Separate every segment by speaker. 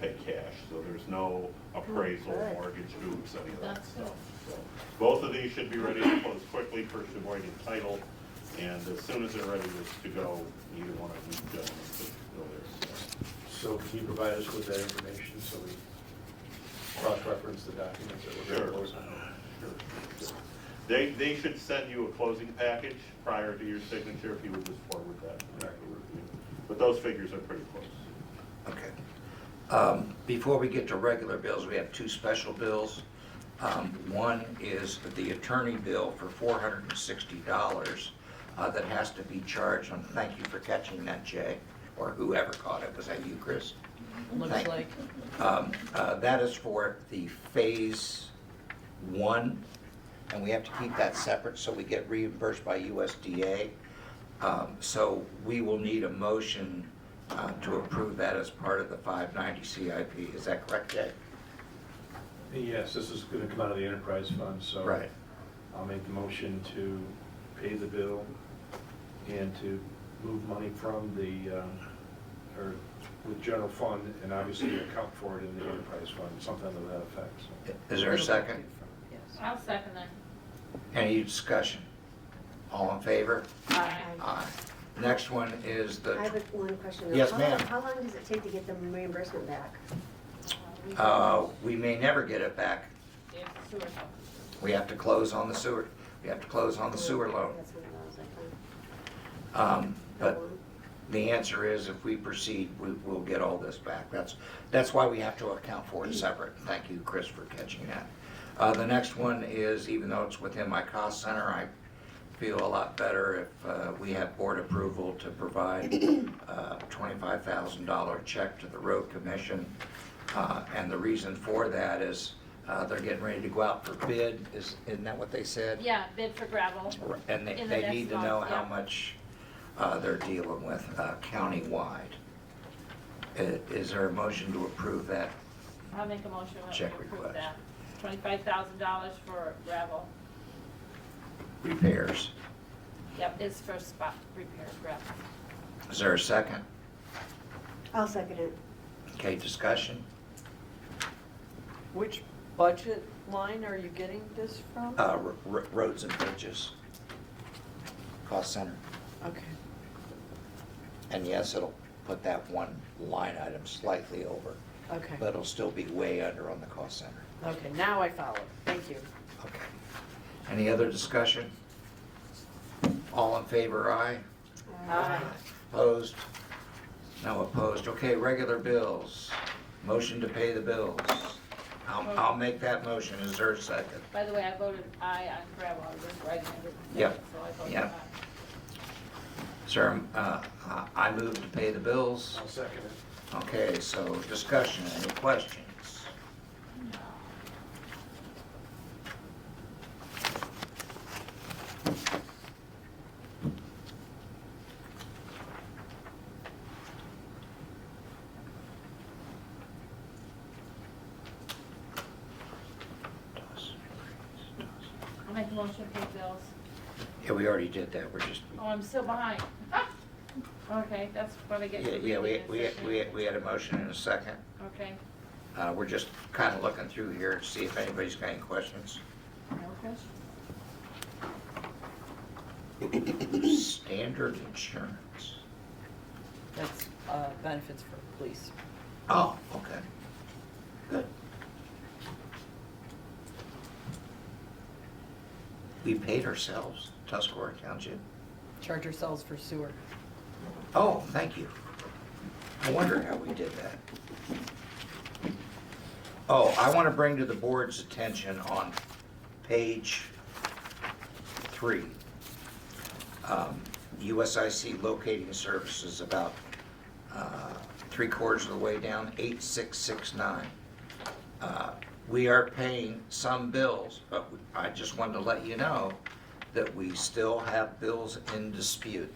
Speaker 1: pay cash, so there's no appraisal,
Speaker 2: Oh, Good.
Speaker 1: mortgage hoops, any of that
Speaker 2: That's good.
Speaker 1: stuff. So Both of these should be ready to close quickly, first avoiding title, and as soon as they're ready to go, either one of these gentlemen could go there. So
Speaker 3: So can you provide us with that information so we cross-reference the documents that we're
Speaker 1: Sure.
Speaker 3: going to close?
Speaker 1: Sure. They, they should send you a closing package prior to your signature if you would just forward that. But those figures are pretty close.
Speaker 4: Okay. Um, Before we get to regular bills, we have two special bills. Um, One is the attorney bill for $460 uh, that has to be charged, and thank you for catching that, Jay, or whoever caught it. Was that you, Chris?
Speaker 2: Looks
Speaker 4: Thank-
Speaker 2: like,
Speaker 4: Um, uh, That is for the Phase 1, and we have to keep that separate so we get reimbursed by USDA. Um, So we will need a motion uh, to approve that as part of the 590 CIP. Is that correct, Jay?
Speaker 3: Yes, this is going to come out of the enterprise fund, so. I'll make the motion to pay the bill and to move money from the, um, or with general fund and obviously account for it in the enterprise fund, something to that effect, so.
Speaker 4: Is there a second?
Speaker 2: yes.
Speaker 5: I'll second that.
Speaker 4: Any discussion? All in favor?
Speaker 5: Aye.
Speaker 4: Aye. Next one is
Speaker 2: I have
Speaker 4: the,
Speaker 2: a- one question. though.
Speaker 4: Yes,
Speaker 2: How long-
Speaker 4: ma'am.
Speaker 2: How long does it take to get the reimbursement back?
Speaker 4: uh, we may never get it back.
Speaker 5: If sewer help.
Speaker 4: We have to close on the sewer, we have to close on the sewer loan.
Speaker 2: That's what I was like,
Speaker 4: Um,
Speaker 2: how
Speaker 4: But
Speaker 2: long?
Speaker 4: The answer is if we proceed, we will get all this back. That's, that's why we have to account for it separate. Thank you, Chris, for catching that. Uh, the next one is, even though it's within my cost center, I feel a lot better if, uh, we have board approval to provide, uh, twenty-five thousand dollar check to the road commission. Uh, and the reason for that is, uh, they're getting ready to go out for bid. Is, isn't that what they said?
Speaker 5: Yeah, bid for gravel.
Speaker 4: And they,
Speaker 5: In the
Speaker 4: they
Speaker 5: next
Speaker 4: need to
Speaker 5: month,
Speaker 4: know how
Speaker 5: yeah.
Speaker 4: much uh, they're dealing with uh, countywide. I- Is there a motion to approve that?
Speaker 5: I'll make a motion that we
Speaker 4: Check
Speaker 5: approve
Speaker 4: request.
Speaker 5: that. Twenty-five thousand dollars for gravel.
Speaker 4: Repairs.
Speaker 5: Yep, it's for spot repair gravel.
Speaker 4: Is there a second?
Speaker 2: I'll second it.
Speaker 4: Okay, discussion?
Speaker 6: Which budget line are you getting this from?
Speaker 4: Uh, r- r- Roads and bridges. Cost center.
Speaker 6: Okay.
Speaker 4: And yes, it'll put that one line item slightly over,
Speaker 6: Okay,
Speaker 4: but it'll still be way under on the cost center.
Speaker 6: okay, now I follow. Thank you.
Speaker 4: Okay. Any other discussion? All in favor, aye?
Speaker 6: Aye.
Speaker 4: Opposed? No opposed. Okay, regular bills. Motion to pay the bills. I'll, I'll make that motion. Is there a second?
Speaker 5: By the way, I voted aye on gravel, I was just writing everything.
Speaker 4: Yep,
Speaker 5: So I voted
Speaker 4: yep.
Speaker 5: aye.
Speaker 4: Sir, uh, I- I move to pay the bills.
Speaker 3: I'll second it.
Speaker 4: Okay, so discussion, any questions?
Speaker 5: I'll make a motion to pay bills.
Speaker 4: Yeah, we already did that, we're just,
Speaker 5: Oh, I'm still behind. Okay, that's what I
Speaker 4: yeah,
Speaker 5: get for
Speaker 4: yeah, we,
Speaker 5: reading
Speaker 4: we,
Speaker 5: this
Speaker 4: we
Speaker 5: session.
Speaker 4: we had a motion and a second.
Speaker 5: Okay,
Speaker 4: Uh, We're just kind of looking through here to see if anybody's got any questions.
Speaker 5: no question?
Speaker 4: Standard insurance.
Speaker 6: That's uh, benefits for police.
Speaker 4: Oh, okay. Good. We paid ourselves, Tuscarora Township.
Speaker 6: Charge ourselves for sewer.
Speaker 4: Oh, thank you. I wonder how we did that. Oh, I want to bring to the board's attention on page three. um, USIC locating services about uh, three quarters of the way down, 8669. Uh, We are paying some bills, but I just wanted to let you know that we still have bills in dispute.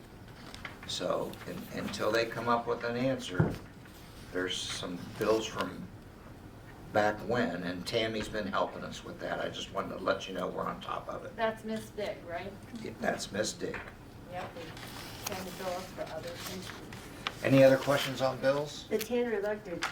Speaker 4: So un- until they come up with an answer, there's some bills from back when, and Tammy's been helping us with that. I just wanted to let you know we're on top of it.
Speaker 5: That's Miss Dick, right?
Speaker 4: That's Miss Dick.
Speaker 5: Yep, we send the bills for other things.
Speaker 4: Any other questions on bills?
Speaker 2: The Tanner Electric